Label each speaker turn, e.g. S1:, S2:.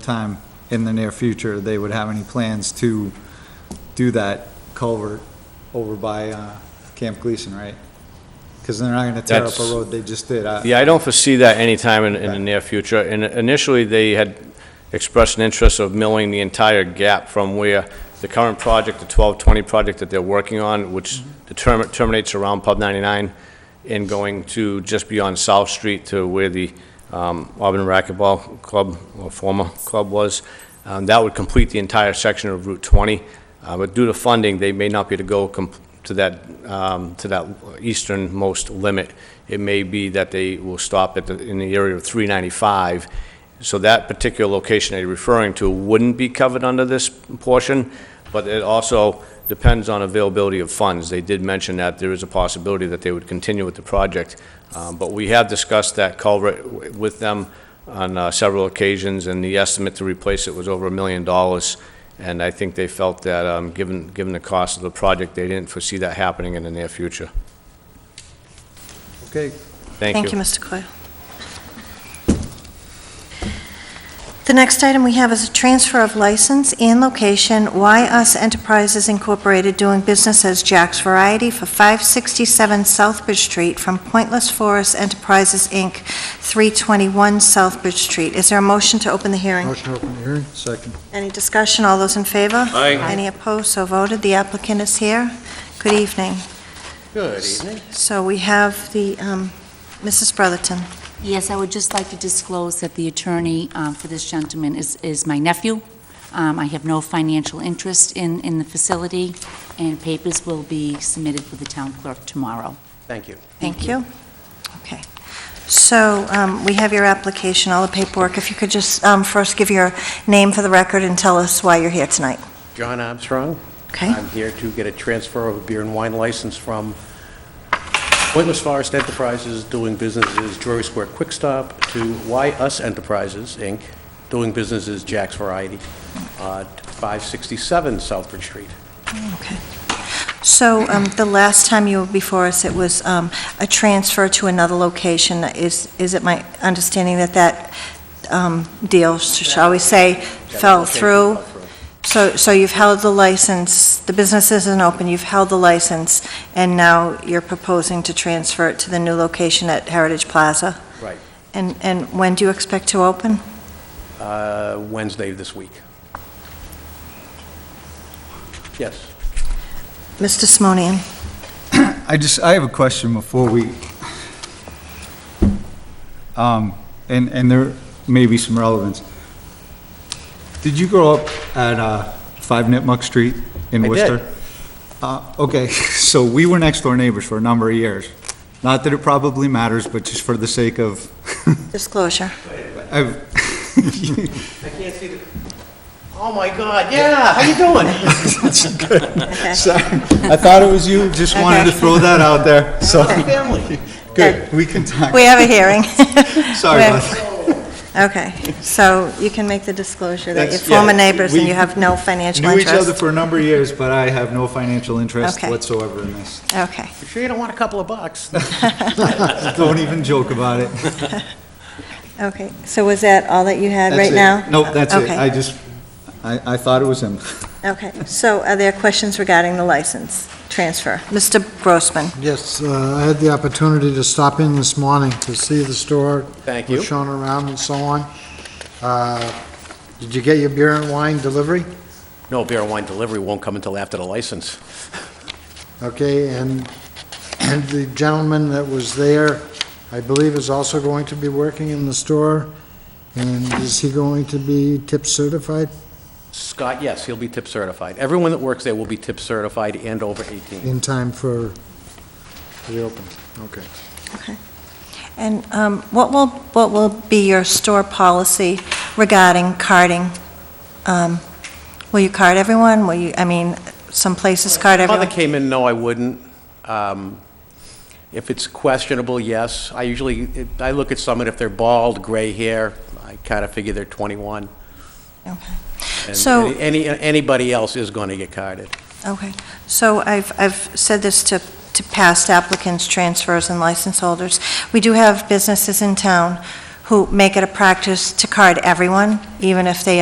S1: time in the near future, they would have any plans to do that culvert over by uh, Camp Gleason, right? Because they're not going to tear up a
S2: That's-
S1: road they just did. I-
S2: Yeah, I don't foresee that anytime in, in the near future. And initially, they had expressed an interest of milling the entire gap from where the current project, the 1220 project that they're working on, which the term- terminates around Pub 99, and going to just beyond South Street to where the um, Auburn Racquetball Club, or former club was. Um, That would complete the entire section of Route 20. Uh, But due to funding, they may not be able to go com- to that, um, to that easternmost limit. It may be that they will stop at, the- in the area of 395. So that particular location they're referring to wouldn't be covered under this portion, but it also depends on availability of funds. They did mention that there is a possibility that they would continue with the project, um, but we have discussed that culvert w- with them on uh, several occasions, and the estimate to replace it was over a million dollars. And I think they felt that, um, given, given the cost of the project, they didn't foresee that happening in the near future.
S1: Okay,
S2: Thank you.
S3: Thank you, Mr. Coyle. The next item we have is a transfer of license and location, Y Us Enterprises Incorporated doing business as Jack's Variety for 567 Southbridge Street from Pointless Forest Enterprises, Inc., 321 Southbridge Street. Is there a motion to open the hearing?
S4: Motion to open the hearing?
S1: second.
S3: Any discussion? All those in favor?
S2: Aye.
S3: Any opposed? So voted. The applicant is here. Good evening.
S2: Good evening.
S3: So we have the, um, Mrs. Brotherton.
S5: Yes, I would just like to disclose that the attorney um, for this gentleman is, is my nephew. Um, I have no financial interest in, in the facility, and papers will be submitted with the town clerk tomorrow.
S6: Thank you.
S3: Thank you. Okay. So um, we have your application, all the paperwork. If you could just um, first give your name for the record and tell us why you're here tonight.
S6: John Armstrong.
S3: Okay?
S6: I'm here to get a transfer of a beer and wine license from Pointless Forest Enterprises, doing businesses Drury Square Quick Stop, to Y Us Enterprises, Inc., doing businesses Jack's Variety, uh, 567 Southbridge Street.
S3: Okay. So um, the last time you were before us, it was um, a transfer to another location. Is, is it my understanding that that um, deal, shall we say, fell through? So, so you've held the license, the business isn't open, you've held the license, and now you're proposing to transfer it to the new location at Heritage Plaza?
S6: Right.
S3: And, and when do you expect to open?
S6: Uh, Wednesday of this week. Yes.
S3: Mr. Simonian?
S1: I just, I have a question before we, um, and, and there may be some relevance. Did you grow up at uh, 5 Nipmuc Street in
S6: I did.
S1: Worcester? Uh, Okay, so we were next door neighbors for a number of years. Not that it probably matters, but just for the sake of,
S3: Disclosure.
S1: I've,
S6: I can't see the... Oh, my God, yeah, how you doing?
S3: Okay.
S1: Sorry, I thought it was you, just wanted to
S3: Okay.
S1: throw that out there, so,
S6: Family.
S1: good, we can talk,
S3: We have a hearing.
S1: sorry
S3: we
S1: about
S3: have-
S1: that.
S3: Okay, so you can make the disclosure that you're
S1: That's- yeah,
S3: former neighbors and
S1: we
S3: you have no financial
S1: Knew each other
S3: interest?
S1: for a number of years, but I have no financial interest
S3: Okay.
S1: whatsoever in this.
S3: Okay,
S6: You sure you don't want a couple of bucks?
S1: Don't even joke about it.
S3: okay. So was that all that you had
S1: That's
S3: right
S1: it.
S3: now?
S1: Nope, that's it,
S3: Okay.
S1: I just, I, I thought it was him.
S3: Okay, so are there questions regarding the license transfer? Mr. Grossman?
S4: Yes, uh, I had the opportunity to stop in this morning to see the store.
S6: Thank
S4: was
S6: you.
S4: shown around and so on. Uh, Did you get your beer and wine delivery?
S6: No, beer and wine delivery won't come until after the license.
S4: Okay, and, and the gentleman that was there, I believe, is also going to be working in the store, and is he going to be tip certified
S6: Scott, yes, he'll be tip certified. Everyone that works there will be tip certified and over 18.
S4: in time for the open? Okay.
S3: And um, what will, what will be your store policy regarding carding? Um, Will you card everyone? Will you, I mean, some places card
S6: Mother
S3: everyone?
S6: came in, no, I wouldn't. Um, If it's questionable, yes. I usually, I look at someone, if they're bald, gray hair, I kind of figure they're 21.
S3: Okay.
S6: And
S3: So-
S6: Any, anybody else is going to get carded.
S3: Okay, so I've, I've said this to, to past applicants, transfers, and license holders. We do have businesses in town who make it a practice to card everyone, even if they